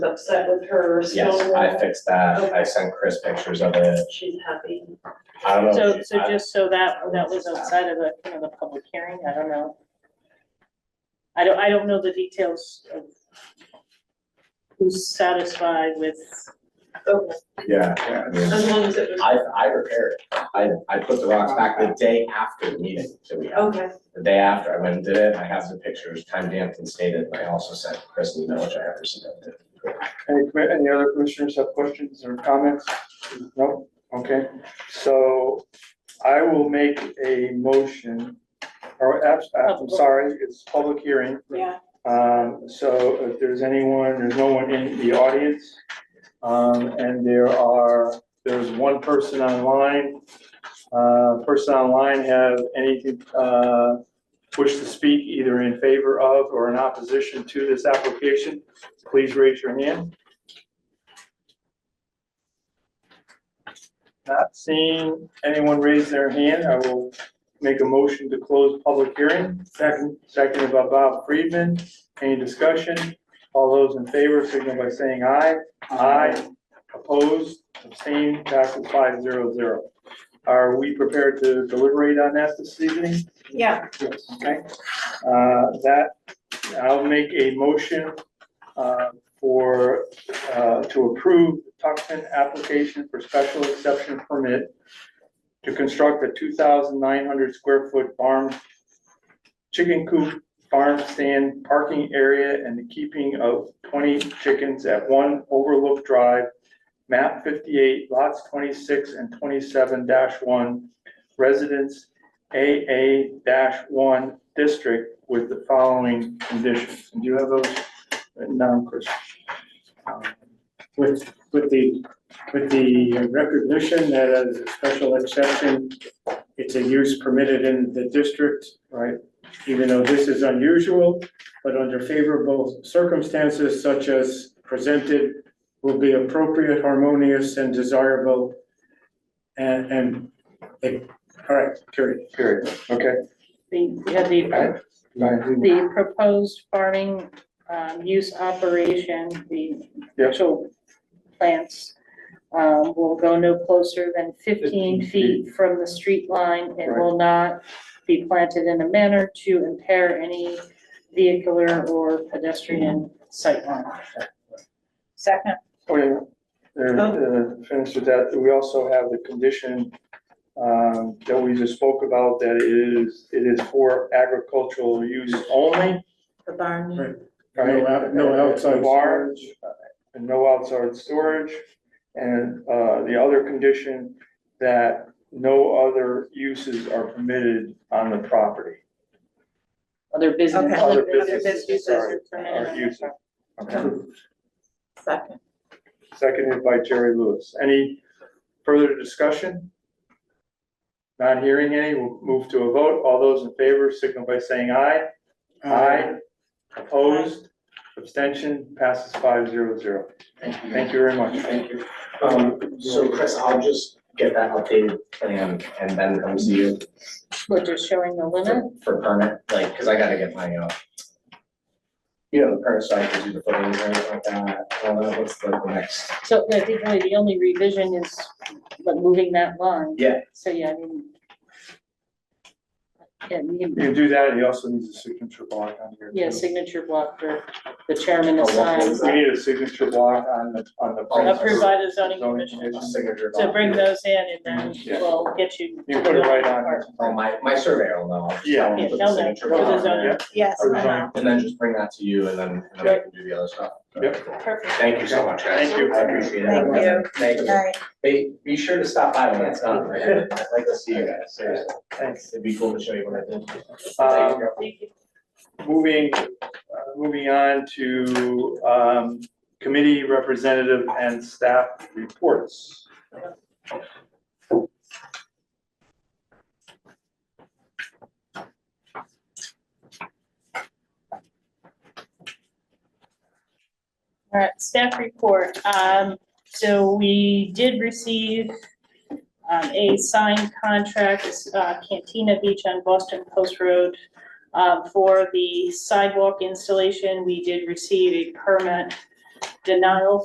upset with her Yes, snow I wall. fixed that. I sent Chris pictures of it. She's happy. I don't know. So, if so I- just so that, that was outside of the, you know, the public hearing, I don't know. I don't, I don't know the details of who's satisfied with, Okay, Yeah, yeah, I mean, as long as it was, I, I repaired. it. I, I put the rocks back the day after the meeting that we had. okay, The day after, I went and did it. I have the pictures, time stamped and stated. and I also sent Chris an email, which I have resubmitted. Any, commi- any other commissioners have questions or comments? No? Okay, so I will make a motion, or, abs- uh, I'm sorry, it's public hearing. yeah, Um, so if there's anyone, there's no one in the audience. Um, and there are, there's one person online. Uh, person online have any, uh, wish to speak either in favor of or in opposition to this application, please raise your hand. Not seeing anyone raise their hand, I will make a motion to close public hearing. Second, seconded by Bob Friedman. Any discussion? All those in favor signal by saying aye. Aye. Opposed, abstained, passes five zero zero. Are we prepared to deliberate on that this evening? yeah, Yes. Okay. Uh, That, I'll make a motion uh, for, uh, to approve the Tuckson application for special exception permit to construct a two thousand nine hundred square foot farm, chicken coop, farm stand, parking area, and the keeping of twenty chickens at one Overlook Drive, map fifty-eight, lots twenty-six and twenty-seven one, residence AA one district with the following conditions. Do you have those Uh, written down, Chris? um, with, with the, with the recognition that as a special exception, it's a use permitted in the district, Right, even though this is unusual, but under favorable circumstances such as presented will be appropriate, harmonious, and desirable. And, and, eh, all right, period. period. Okay. the, yeah, the, Right. the proposed farming, um, use operation, the Yep. actual plants um, will go no closer than 15 fifteen feet. feet from the street line and will not be planted in a manner to impair any vehicular or pedestrian sightline. Second, Wait, a minute. Oh. There, Oh, uh, finish with that. We also have the condition um, that we just spoke about, that it is, it is for agricultural use only. the barn. Right. right? No out- no outside Barn, storage. uh, and no outside storage. And uh, the other condition, that no other uses are permitted on the property. Other business. Okay. Other businesses, businesses, sorry, sorry, are uses. Okay. Second, Seconded by Jerry Lewis. Any further discussion? Not hearing any, we'll move to a vote. All those in favor signal by saying aye. Aye. Opposed, abstention passes five zero zero. Thank you. Thank you very much. Thank you. Um, so Chris, I'll just get that updated plan and then come see you We're just showing the limit. for, for permit, like, cause I gotta get my, uh, you know, the permit, so I can do the footings and everything like that, all that, what's the the next? So I think really the only revision is like moving that line. Yeah. So, yeah, I mean. Yeah, we can- You do that, he also needs a signature block on here. yeah, too. signature block for the chairman Oh, what assigns. was We need a signature block on the, on the. Oh, Approved by the zoning Zoning commission. commission. Signature. So bring document. those in and Yeah. then we'll get you. You put it right on. Oh, my, my surveyor will know. I'll just tell Yeah. him to Yeah, put the tell them, signature put the block on zoning. there, yes, Or I know. And then just bring that to you and then, and then I can do the other stuff. Yep. Perfect. Thank you so much, guys. Thank you. I appreciate it. Thank you. Thank you. Aye. Be, be sure to stop by when it's done, right? I'd like to see you guys, seriously. Thanks. It'd be cool to show you what I did. Um, Thank you. Moving, uh, moving on to um, committee representative and staff reports. All right, uh, staff report. Um, so we did receive um, a signed contract, uh, Cantina Beach on Boston Post Road. um, uh, for the sidewalk installation, we did receive a permit denial